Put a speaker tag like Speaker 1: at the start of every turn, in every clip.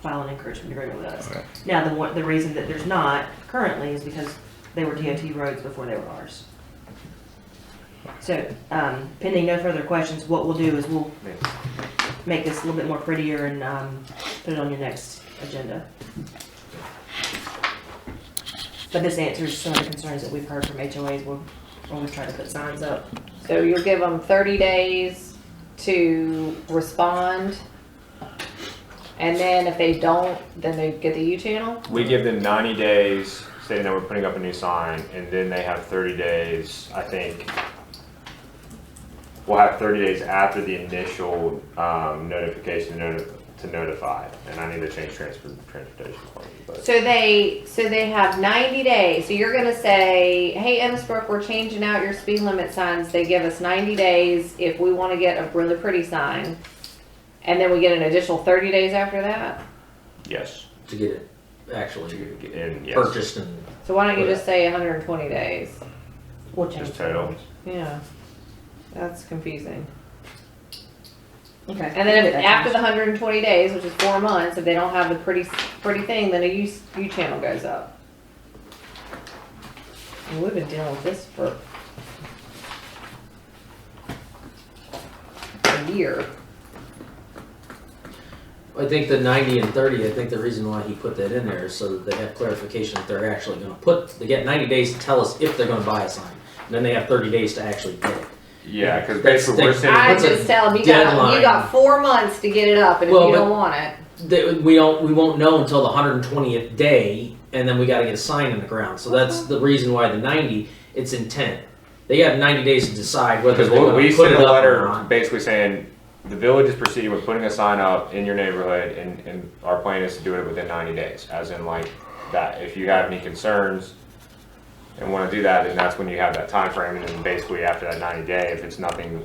Speaker 1: file an encouragement agreement with us.
Speaker 2: Okay.
Speaker 1: Now, the, one- the reason that there's not currently is because they were DOT roads before they were ours. So, um, pending no further questions, what we'll do is we'll make this a little bit more prettier and, um, put it on your next agenda. But this answers some of the concerns that we've heard from HOAs when, when we try to put signs up.
Speaker 3: So you'll give them thirty days to respond. And then if they don't, then they get the U channel?
Speaker 4: We give them 90 days saying that we're putting up a new sign, and then they have 30 days, I think. We'll have 30 days after the initial um, notification to noti- to notify, and I need to change transfer, transportation. plan, but-
Speaker 3: So they, so they have ninety days, so you're gonna say, hey, Emmitsburg, we're changing out your speed limit signs, they give us ninety days if we wanna get a really pretty sign. And then we get an additional thirty days after that?
Speaker 4: Yes.
Speaker 2: To get it actually
Speaker 4: And yes,
Speaker 2: purchased and
Speaker 3: So why don't you just say hundred and twenty days?
Speaker 1: We'll change.
Speaker 4: just total.
Speaker 3: Yeah, that's confusing.
Speaker 1: Okay.
Speaker 3: And then if, after the hundred and twenty days, which is four months, if they don't have the pretty, pretty thing, then a U, U channel goes up. And We've been dealing with this for a year.
Speaker 2: I think the 90 and 30, I think the reason why he put that in there is so that they have clarification that they're actually going to put, they get 90 days to tell us if they're going to buy a sign. And then they have 30 days to actually get it.
Speaker 4: Yeah, because
Speaker 2: That's-
Speaker 4: basically we're
Speaker 2: that's-
Speaker 4: sending.
Speaker 3: I
Speaker 2: what's a
Speaker 3: just tell them, you got,
Speaker 2: deadline?
Speaker 3: you got four months to get it up, and if
Speaker 2: Well,
Speaker 3: you
Speaker 2: but-
Speaker 3: don't want it,
Speaker 2: They, we, don't, we won't know until the 120th day, and then we got to get a sign in the ground. So that's the reason why the 90, it's intent. They have 90 days to decide whether
Speaker 4: Because
Speaker 2: they're
Speaker 4: we,
Speaker 2: going
Speaker 4: we
Speaker 2: to put
Speaker 4: sent
Speaker 2: it
Speaker 4: a
Speaker 2: up or
Speaker 4: letter
Speaker 2: not.
Speaker 4: basically saying, the village is proceeding with putting a sign up in your neighborhood and, and our plan is to do it within ninety days, as in like that, if you have any concerns and wanna do that, then that's when you have that time frame. and then basically after that ninety day, if it's nothing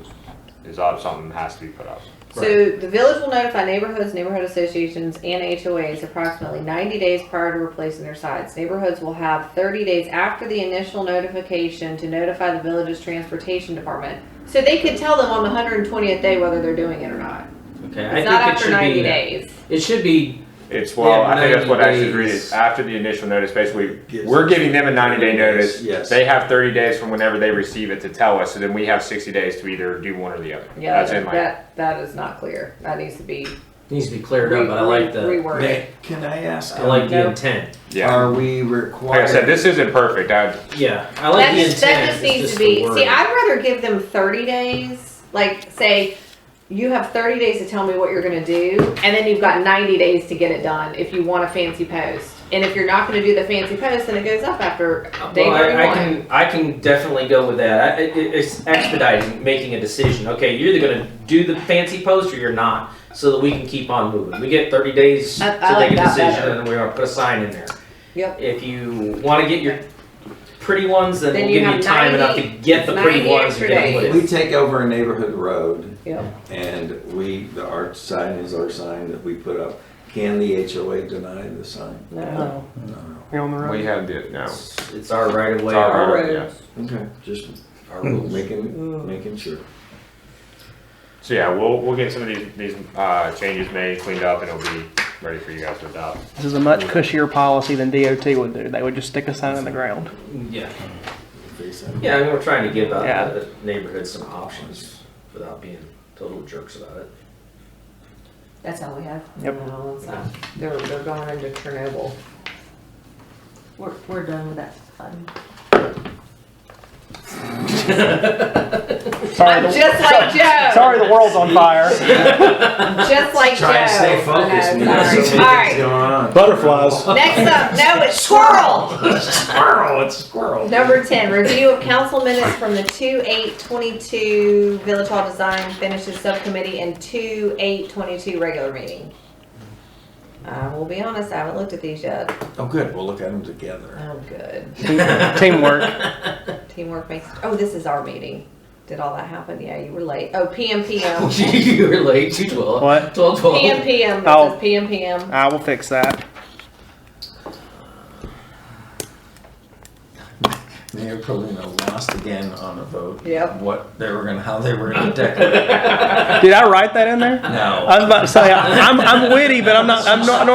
Speaker 4: is up, something has to be put up.
Speaker 3: So the village will notify neighborhoods, neighborhood associations, and HOAs approximately ninety days prior to replacing their signs. Neighborhoods will have thirty days after the initial notification to notify the village's transportation department. So they could tell them on the hundred and twentieth day whether they're doing it or not.
Speaker 2: Okay, I
Speaker 3: It's
Speaker 2: think
Speaker 3: not
Speaker 2: it
Speaker 3: after
Speaker 2: should
Speaker 3: ninety
Speaker 2: be.
Speaker 3: days.
Speaker 2: It should be.
Speaker 4: It's,
Speaker 2: We
Speaker 4: well,
Speaker 2: have
Speaker 4: I think that's
Speaker 2: 90
Speaker 4: what I should read
Speaker 2: days.
Speaker 4: it, after the initial notice, basically,
Speaker 5: Gives
Speaker 4: we're
Speaker 5: us
Speaker 4: giving them a ninety day
Speaker 5: 30
Speaker 4: notice.
Speaker 5: days, yes.
Speaker 4: They have thirty days from whenever they receive it to tell us, so then we have sixty days to either do one or the other.
Speaker 3: Yeah,
Speaker 4: As in like-
Speaker 3: that, that is not clear. That needs to be
Speaker 2: Needs to be cleared
Speaker 3: re-
Speaker 2: up, but I like the
Speaker 3: reworded.
Speaker 5: Nick, can I ask? um,
Speaker 2: I like the
Speaker 3: No.
Speaker 2: intent.
Speaker 4: Yeah.
Speaker 5: Are we required?
Speaker 4: Like I said, this isn't perfect. I,
Speaker 2: Yeah, I like
Speaker 3: That
Speaker 2: the
Speaker 3: just,
Speaker 2: intent.
Speaker 3: that just
Speaker 2: it's
Speaker 3: needs to
Speaker 2: the
Speaker 3: be, see,
Speaker 2: wording.
Speaker 3: I'd rather give them thirty days, like, say, you have thirty days to tell me what you're gonna do, and then you've got ninety days to get it done if you want a fancy post. And if you're not gonna do the fancy post, then it goes up after day
Speaker 2: Well, I, I
Speaker 3: thirty-one.
Speaker 2: can I can definitely go with that. I, it, it's expediting making a decision. Okay, you're either going to do the fancy post or you're not, so that we can keep on moving. We get 30 days
Speaker 3: I- I
Speaker 2: to
Speaker 3: like
Speaker 2: make a
Speaker 3: that
Speaker 2: decision,
Speaker 3: better.
Speaker 2: and then we're going to put a sign in there.
Speaker 3: Yep.
Speaker 2: If you want to get your pretty ones, then,
Speaker 3: Then
Speaker 2: we'll
Speaker 3: you
Speaker 2: give you
Speaker 3: have
Speaker 2: time
Speaker 3: 90
Speaker 2: enough to get the pretty
Speaker 3: 90
Speaker 2: ones
Speaker 3: extra
Speaker 2: and get them
Speaker 5: We
Speaker 2: lit.
Speaker 5: take over a neighborhood road
Speaker 3: Yep.
Speaker 5: and we, the art sign is our sign that we put up. Can the HOA deny the sign?
Speaker 3: No.
Speaker 5: No.
Speaker 4: we have the no.
Speaker 2: It's, it's our right of way.
Speaker 4: It's our
Speaker 2: Our,
Speaker 4: road,
Speaker 3: road.
Speaker 4: yeah.
Speaker 5: Okay, just
Speaker 2: our rules.
Speaker 3: Mm.
Speaker 5: making, making sure.
Speaker 4: So yeah, we'll we'll get some of these these uh, changes made, cleaned up, and it'll be ready for you guys to adopt.
Speaker 6: This is a much cushier policy than DOT would do. They would just stick a sign in the ground.
Speaker 2: Yeah.
Speaker 5: Face it.
Speaker 2: Yeah, I mean, we're trying to give uh,
Speaker 6: Yeah.
Speaker 2: the neighborhood some options without being total jerks about it.
Speaker 3: That's all we have?
Speaker 6: Yep.
Speaker 3: No, it's not. They're, they're going into Chernobyl.
Speaker 1: We're, we're done with that fun.
Speaker 6: Sorry,
Speaker 3: I'm
Speaker 6: the,
Speaker 3: just like Joe.
Speaker 6: sorry, the world's on fire.
Speaker 3: Just like Joe.
Speaker 5: Trying to stay focused.
Speaker 3: I
Speaker 5: we
Speaker 3: know,
Speaker 5: got so many
Speaker 3: sorry. All right.
Speaker 5: things going on.
Speaker 7: Butterflies.
Speaker 3: Next up, no, it's squirrel.
Speaker 5: Squirrel, it's squirrel.
Speaker 3: Number ten, review of council minutes from the two eight twenty-two Village Hall Design Finishes Subcommittee and two eight twenty-two regular meeting. I will be honest, I haven't looked at these yet.
Speaker 5: Oh, good, we'll look at them together.
Speaker 3: Oh, good.
Speaker 6: Teamwork.
Speaker 3: Teamwork makes, oh, this is our meeting. Did all that happen? Yeah, you were late. Oh, PM PM.
Speaker 2: you were late. You twelve.
Speaker 6: What?
Speaker 2: Twelve twelve.
Speaker 3: PM PM,
Speaker 6: Oh.
Speaker 3: this is PM PM.
Speaker 6: I will fix that.
Speaker 5: Mayor Polino lost again on a vote.
Speaker 3: Yep.
Speaker 5: What they were gonna, how they were gonna decorate.
Speaker 6: Did I write that in there?
Speaker 5: No.
Speaker 6: I was about to say I, I'm I'm witty, but I'm not I'm not